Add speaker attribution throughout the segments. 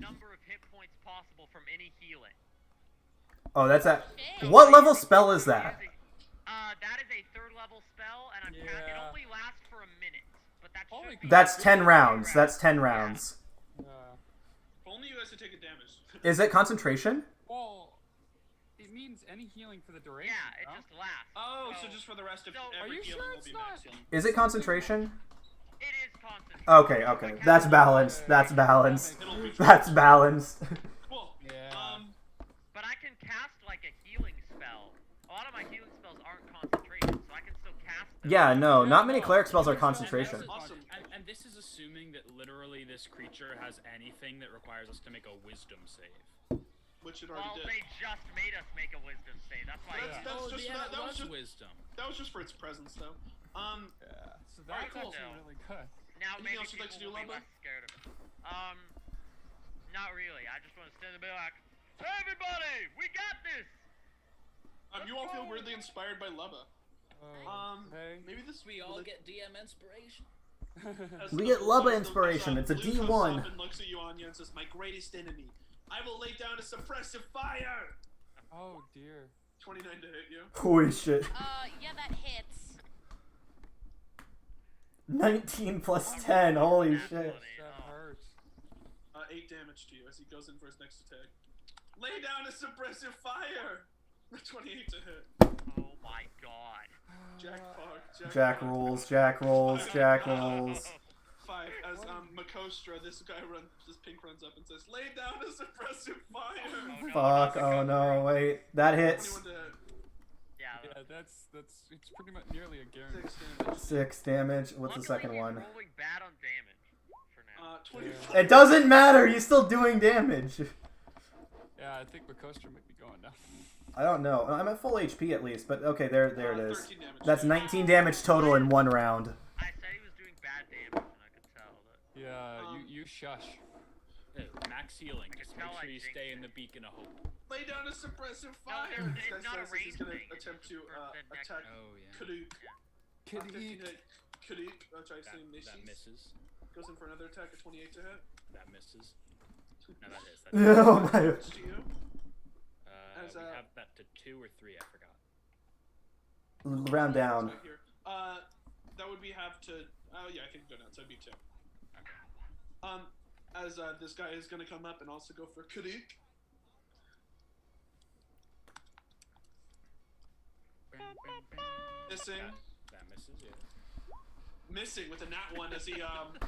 Speaker 1: number of hit points possible from any healing.
Speaker 2: Oh, that's that.
Speaker 3: Shit.
Speaker 2: What level spell is that?
Speaker 1: Using- Uh, that is a third level spell, and I'm ca- it
Speaker 4: Yeah.
Speaker 1: only lasts for a minute, but that should
Speaker 4: Holy
Speaker 1: be.
Speaker 4: crap.
Speaker 2: That's ten rounds. That's ten rounds.
Speaker 4: Uh,
Speaker 5: If only you guys had taken damage.
Speaker 2: Is it concentration?
Speaker 4: well, it means any healing for the duration.
Speaker 1: Yeah, it
Speaker 4: no?
Speaker 1: just lasts.
Speaker 5: Oh, so just for the rest of
Speaker 1: So- Are
Speaker 5: every
Speaker 4: you
Speaker 5: healing
Speaker 4: sure
Speaker 5: will
Speaker 4: it's
Speaker 5: be
Speaker 4: not-
Speaker 5: max healing.
Speaker 2: Is it concentration?
Speaker 1: It is constant.
Speaker 2: Okay, okay. That's balanced. That's balanced.
Speaker 5: It'll be
Speaker 2: That's balanced.
Speaker 5: cool.
Speaker 4: Yeah.
Speaker 5: Um,
Speaker 1: But I can cast like a healing spell. A lot of my healing spells aren't concentration, so I can still cast them.
Speaker 2: yeah, no, not many cleric spells are concentration.
Speaker 6: Awesome. And, and this is assuming that literally this creature has anything that requires us to make a wisdom save.
Speaker 5: which it
Speaker 1: Well,
Speaker 5: already did.
Speaker 1: they just made us make a wisdom save. That's why.
Speaker 5: That's-
Speaker 1: Yeah.
Speaker 5: that's
Speaker 6: oh,
Speaker 5: just-
Speaker 6: yeah,
Speaker 5: that-
Speaker 6: it
Speaker 5: that was
Speaker 6: was
Speaker 5: just-
Speaker 6: wisdom.
Speaker 5: That was just for its presence, though. Um,
Speaker 4: So
Speaker 5: Alright,
Speaker 4: that's
Speaker 5: cool.
Speaker 4: actually really good.
Speaker 1: Now
Speaker 5: Anything
Speaker 1: maybe
Speaker 5: else you'd
Speaker 1: people
Speaker 5: like to do,
Speaker 1: will be
Speaker 5: Lumbo?
Speaker 1: less scared of it. Um, not really. I just want to stand and be like, "Everybody, we got this."
Speaker 5: um, you all feel weirdly inspired by Lubba.
Speaker 4: Oh,
Speaker 5: Um,
Speaker 4: okay.
Speaker 5: maybe this
Speaker 7: We all
Speaker 5: will-
Speaker 7: get DM inspiration.
Speaker 5: as
Speaker 2: We
Speaker 5: the-
Speaker 2: get Lubba
Speaker 5: as the-
Speaker 2: inspiration,
Speaker 5: as
Speaker 2: it's
Speaker 5: the
Speaker 2: a
Speaker 5: blue comes
Speaker 2: D1.
Speaker 5: up and looks at you, Anya, and says, "My greatest enemy. I will lay down a suppressive fire."
Speaker 4: oh dear.
Speaker 5: 29 to hit you.
Speaker 2: Holy shit.
Speaker 3: Uh, yeah, that hits.
Speaker 2: 19 plus 10. Holy shit.
Speaker 4: That hurts.
Speaker 5: Uh, 8 damage to you as he goes in for his next attack. Lay down a suppressive fire. 28 to hit.
Speaker 1: Oh my god.
Speaker 5: Jack
Speaker 7: Uh,
Speaker 5: fuck. Jack,
Speaker 2: Jack
Speaker 5: fuck.
Speaker 2: rules, Jack rolls, Jack rolls.
Speaker 5: Five. As um, Makostra, this guy runs, this pink runs up and says, "Lay down a suppressive fire."
Speaker 1: Oh, no,
Speaker 2: Fuck,
Speaker 1: no,
Speaker 2: oh no, wait. That hits.
Speaker 5: 21 to hit.
Speaker 1: Yeah.
Speaker 4: Yeah, that's that's it's pretty much nearly a guarantee.
Speaker 5: Six damage.
Speaker 2: Six damage. What's the
Speaker 1: Luckily,
Speaker 2: second
Speaker 1: he's
Speaker 2: one?
Speaker 1: Rolling bad on damage for now.
Speaker 5: Uh, 25.
Speaker 2: It doesn't matter, he's still doing damage.
Speaker 4: Yeah, I think Makostra might be going now.
Speaker 2: I don't know. I'm at full HP at least, but okay, there there it is.
Speaker 5: 13 Uh, damage.
Speaker 2: That's 19 damage total in one round.
Speaker 1: I said he was doing bad damage, and I could tell that.
Speaker 4: Yeah,
Speaker 5: Um,
Speaker 4: you you shush.
Speaker 6: Hey, Uh, max healing. Just make
Speaker 1: tell I
Speaker 6: sure you
Speaker 1: jinxed
Speaker 6: stay in
Speaker 1: it.
Speaker 6: the beacon of hope.
Speaker 5: Lay down a suppressive
Speaker 1: No,
Speaker 5: fire.
Speaker 1: it's- it's
Speaker 5: This guy
Speaker 1: not a
Speaker 5: says that he's
Speaker 1: ranged
Speaker 5: gonna
Speaker 1: thing, it's
Speaker 5: attempt
Speaker 1: just a
Speaker 5: to uh,
Speaker 1: person that
Speaker 5: attack
Speaker 6: Oh yeah.
Speaker 5: Kaluk.
Speaker 4: Kid
Speaker 5: Uh, 15
Speaker 4: eat.
Speaker 5: hit. Kaluk. Uh, tries to
Speaker 6: That, that
Speaker 5: miss.
Speaker 6: misses.
Speaker 5: Goes in for another attack at 28 to hit.
Speaker 6: That misses. No, that is. That is.
Speaker 2: oh my.
Speaker 5: Damage to you.
Speaker 6: Uh,
Speaker 5: As,
Speaker 6: we
Speaker 5: uh,
Speaker 6: have that to two or three. I forgot.
Speaker 2: Round down.
Speaker 5: Right here. Uh, that would be have to. Oh yeah, I think go down. So it'd be two. Um, as uh, this guy is gonna come up and also go for Kadik. Missing,
Speaker 6: That, that misses. Yeah.
Speaker 5: missing with a nat one as he um.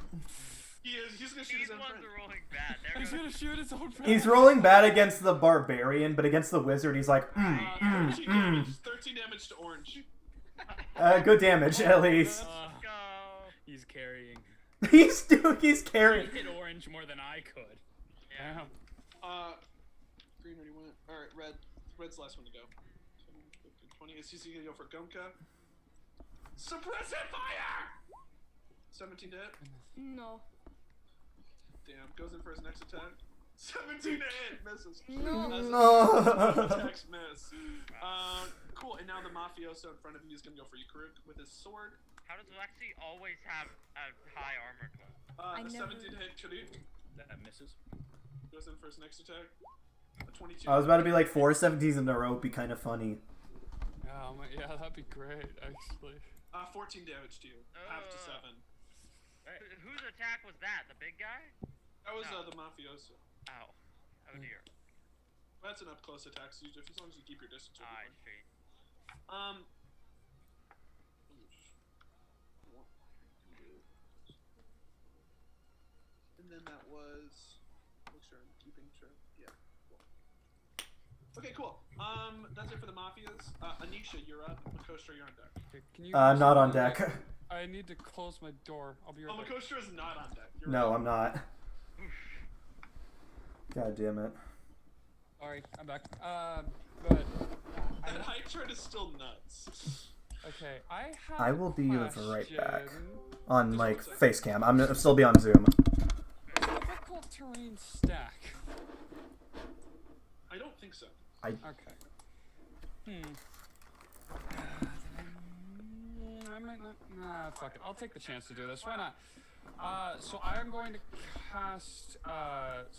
Speaker 5: He is. He's gonna shoot
Speaker 1: These
Speaker 5: his own
Speaker 1: ones
Speaker 5: friend. Uh,
Speaker 1: are rolling bad. There
Speaker 4: He's
Speaker 1: goes.
Speaker 4: gonna shoot his own friend.
Speaker 2: He's rolling bad against the barbarian, but against the wizard, he's like, mm,
Speaker 5: Uh,
Speaker 2: mm,
Speaker 5: 13,
Speaker 2: mm.
Speaker 5: damage, 13 damage to orange.
Speaker 2: Uh, good damage, at least.
Speaker 6: Uh,
Speaker 1: Go.
Speaker 6: he's carrying.
Speaker 2: He's doing, he's
Speaker 6: He
Speaker 2: carrying.
Speaker 6: hit orange more than I could.
Speaker 1: Yeah.
Speaker 4: Damn.
Speaker 5: Uh, green already went. All right, red. Red's the last one to go. 10, 15, 20. Is he gonna go for Gunka? Suppressive fire. 17 to hit.
Speaker 3: No.
Speaker 5: Damn, goes in for his next attack. 17 to hit, misses.
Speaker 3: No.
Speaker 5: As
Speaker 2: No.
Speaker 5: Attacks miss. Um, cool, and now the mafioso in front of you is gonna go for Yukuruk with his sword.
Speaker 1: How does Lexi always have a high armor class?
Speaker 5: Uh,
Speaker 3: I
Speaker 5: a
Speaker 3: never-
Speaker 5: 17 to hit Kaduk
Speaker 6: That misses.
Speaker 5: goes in for his next attack. A 22.
Speaker 2: I was about to be like four seventies in a row would be kind of funny.
Speaker 4: Oh my, yeah, that'd be great actually.
Speaker 5: Uh, 14 damage to you. Half to
Speaker 1: Uh.
Speaker 5: 7.
Speaker 1: Wh- Whose attack was that? The big guy?
Speaker 5: That was
Speaker 1: No.
Speaker 5: uh, the mafioso.
Speaker 1: Oh.
Speaker 4: Hmm.
Speaker 1: Oh dear.
Speaker 5: That's an up close attack, so you, just- as long as you keep your distance. you'll be
Speaker 1: I see.
Speaker 5: fine. Um. And then that was. Make sure I'm keeping sure. Yeah. Cool. Okay, cool. Um, that's it for the mafias. Uh, Anisha, you're up. Makostra, you're on deck.
Speaker 4: Okay, can you?
Speaker 2: Uh, not on
Speaker 4: Wait, wait,
Speaker 2: deck.
Speaker 4: I need to close my door. I'll be
Speaker 5: Oh,
Speaker 4: right back.
Speaker 5: Makostra is not on deck. You're
Speaker 2: No,
Speaker 5: right.
Speaker 2: I'm not. God damn it.
Speaker 4: Alright, I'm back. Um, but
Speaker 5: That hype train is still nuts.
Speaker 4: okay, I have.
Speaker 2: I
Speaker 4: a
Speaker 2: will be right back.
Speaker 4: question.
Speaker 2: On like face cam, I'm I'll still be on Zoom.
Speaker 4: Difficult terrain stack.
Speaker 5: I don't think so.
Speaker 4: Okay. Hmm. Mm, I might not. Nah, fuck it. I'll take the chance to do this. Why not? Uh, so I am going to cast uh,